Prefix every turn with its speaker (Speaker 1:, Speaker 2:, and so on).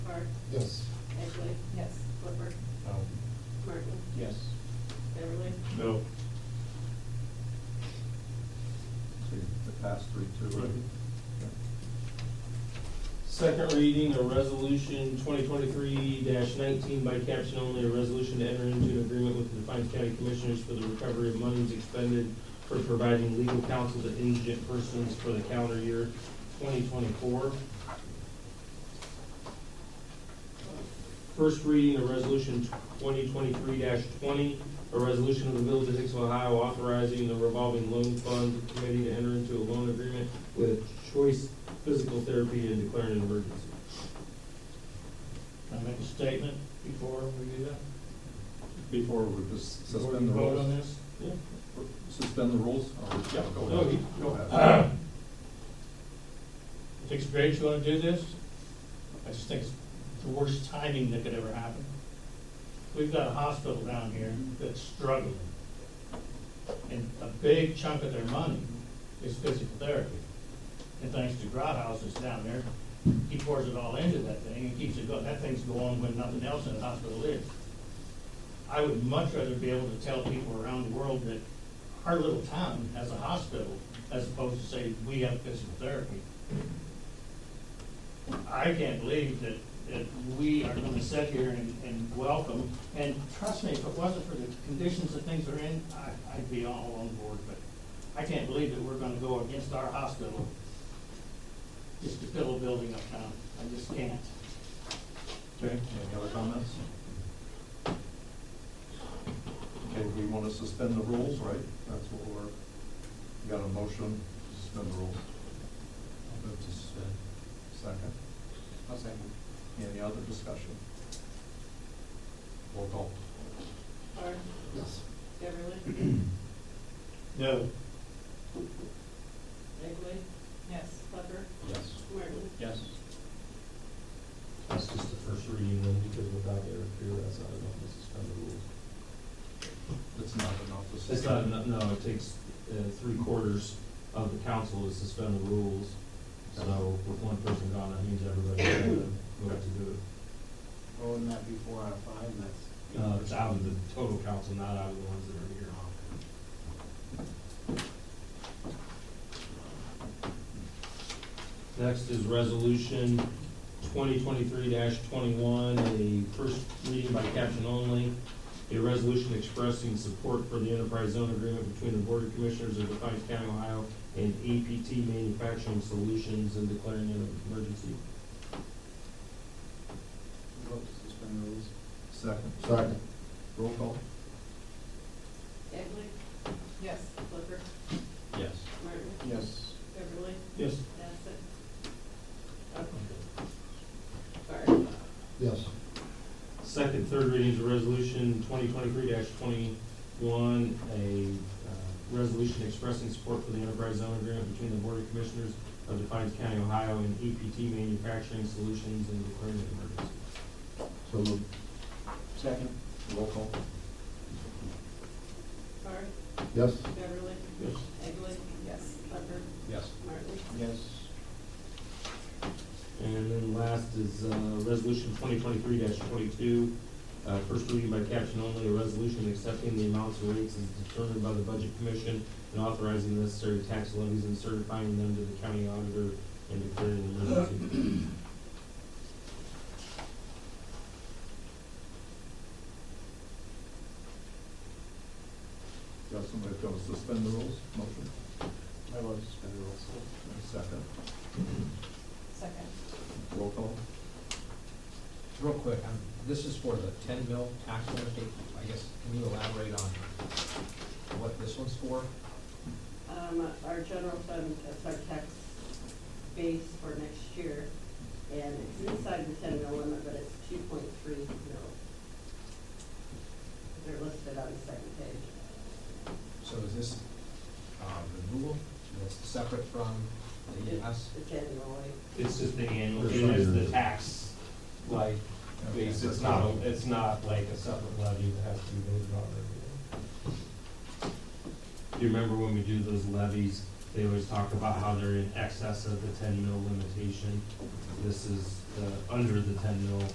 Speaker 1: Clark,
Speaker 2: Yes.
Speaker 1: Egley,
Speaker 3: Yes.
Speaker 1: Flipper,
Speaker 4: No.
Speaker 5: Um,
Speaker 1: Martin,
Speaker 2: Yes.
Speaker 1: Beverly.
Speaker 4: No.
Speaker 6: So you pass three, two, right?
Speaker 4: Mhm.
Speaker 6: Okay.
Speaker 4: Second reading of resolution twenty twenty-three nineteen by caption only, a resolution to enter into an agreement with the Defiance County Commissioners for the recovery of monies expended for providing legal counsel to indigent persons for the calendar year twenty twenty-four. First reading of resolution twenty twenty-three twenty, a resolution of the Village of Hicksville, Ohio authorizing the revolving loan fund committee to enter into a loan agreement with Choice Physical Therapy and declaring an emergency.
Speaker 5: Can I make a statement before we do that?
Speaker 6: Before we just
Speaker 5: Before
Speaker 6: suspend
Speaker 5: you
Speaker 6: the
Speaker 5: vote on
Speaker 6: rules?
Speaker 5: this?
Speaker 4: Yeah.
Speaker 6: Suspend the rules? or-
Speaker 4: Yeah.
Speaker 6: Go
Speaker 4: No,
Speaker 6: ahead.
Speaker 4: you-
Speaker 6: Go ahead.
Speaker 5: Sixth grade, you wanna do this? I just think it's the worst timing that could ever happen. We've got a hospital down here that's struggling. And a big chunk of their money is physical therapy. And thanks to Grothaus that's down there, he pours it all into that thing and keeps it going. That thing's going when nothing else in the hospital is. I would much rather be able to tell people around the world that our little town has a hospital as opposed to say, we have physical therapy. I can't believe that, that we are gonna sit here and, and welcome, and trust me, if it wasn't for the conditions that things are in, I, I'd be all on board, but I can't believe that we're gonna go against our hospital just to fill a building uptown. I just can't.
Speaker 6: Okay, any other comments? Okay, we want to suspend the rules, right? That's what we're, we got a motion, to suspend the rules. Move to suspend. Second. I'll second. Any other discussion? Roll call.
Speaker 1: Clark,
Speaker 2: Yes.
Speaker 1: Beverly,
Speaker 5: No.
Speaker 1: Egley,
Speaker 3: Yes.
Speaker 1: Flipper,
Speaker 2: Yes.
Speaker 1: Martin,
Speaker 5: Yes.
Speaker 4: That's just the first reading then, because without Eric here, that's not enough to suspend the rules.
Speaker 6: It's not enough to suspend.
Speaker 4: It's not enough, no, it takes uh, three quarters of the council to suspend the rules. So with one person gone, that means everybody will have to do
Speaker 7: Well, wouldn't Oh, that be four out of five, and that's?
Speaker 4: it. Uh, it's out of the total council, not out of the ones that are here. Next is resolution twenty twenty-three twenty-one, a first reading by caption only. A resolution expressing support for the enterprise zone agreement between the Board of Commissioners of Defiance County, Ohio and APT Manufacturing Solutions and declaring an emergency.
Speaker 7: Vote to suspend the rules.
Speaker 6: Second,
Speaker 2: Second.
Speaker 6: roll call.
Speaker 1: Egley,
Speaker 3: Yes.
Speaker 1: Flipper,
Speaker 5: Yes.
Speaker 1: Martin,
Speaker 7: Yes.
Speaker 1: Beverly,
Speaker 4: Yes.
Speaker 1: Bassett, Clark,
Speaker 2: Yes.
Speaker 4: Second, third readings of resolution twenty twenty-three twenty-one, a uh, resolution expressing support for the enterprise zone agreement between the Board of Commissioners of Defiance County, Ohio and EPT Manufacturing Solutions and declaring an emergency.
Speaker 2: So moved.
Speaker 7: Second?
Speaker 6: Roll call.
Speaker 1: Clark,
Speaker 2: Yes.
Speaker 1: Beverly,
Speaker 4: Yes.
Speaker 1: Egley,
Speaker 3: Yes.
Speaker 1: Flipper,
Speaker 2: Yes.
Speaker 1: Martin,
Speaker 7: Yes.
Speaker 4: And then last is, uh, resolution twenty twenty-three twenty-two, uh, first reading by caption only, a resolution accepting the amounts and rates as determined by the Budget Commission and authorizing the necessary tax levies and certifying them to the county auditor and declaring an emergency.
Speaker 6: Got somebody going to suspend the rules? Motion,
Speaker 7: I vote to suspend the rules.
Speaker 6: second,
Speaker 3: Second.
Speaker 6: roll call.
Speaker 8: Real quick, um, this is for the ten mil tax benefit, I guess, can you elaborate on what this one's for?
Speaker 1: Um, our general fund, that's our tax base for next year, and it's inside the ten mil limit, but it's two point three mil. They're listed on the second page.
Speaker 8: So is this, um, renewal, that's separate from the ES?
Speaker 1: It's annually.
Speaker 4: It's just the annual, it is the tax, like, base, it's not, a- it's not like a separate levy that has to be voted on every year. Do you remember when we do those levies, They always talk about how they're in excess of the ten mil limitation. This is, uh, under the ten mil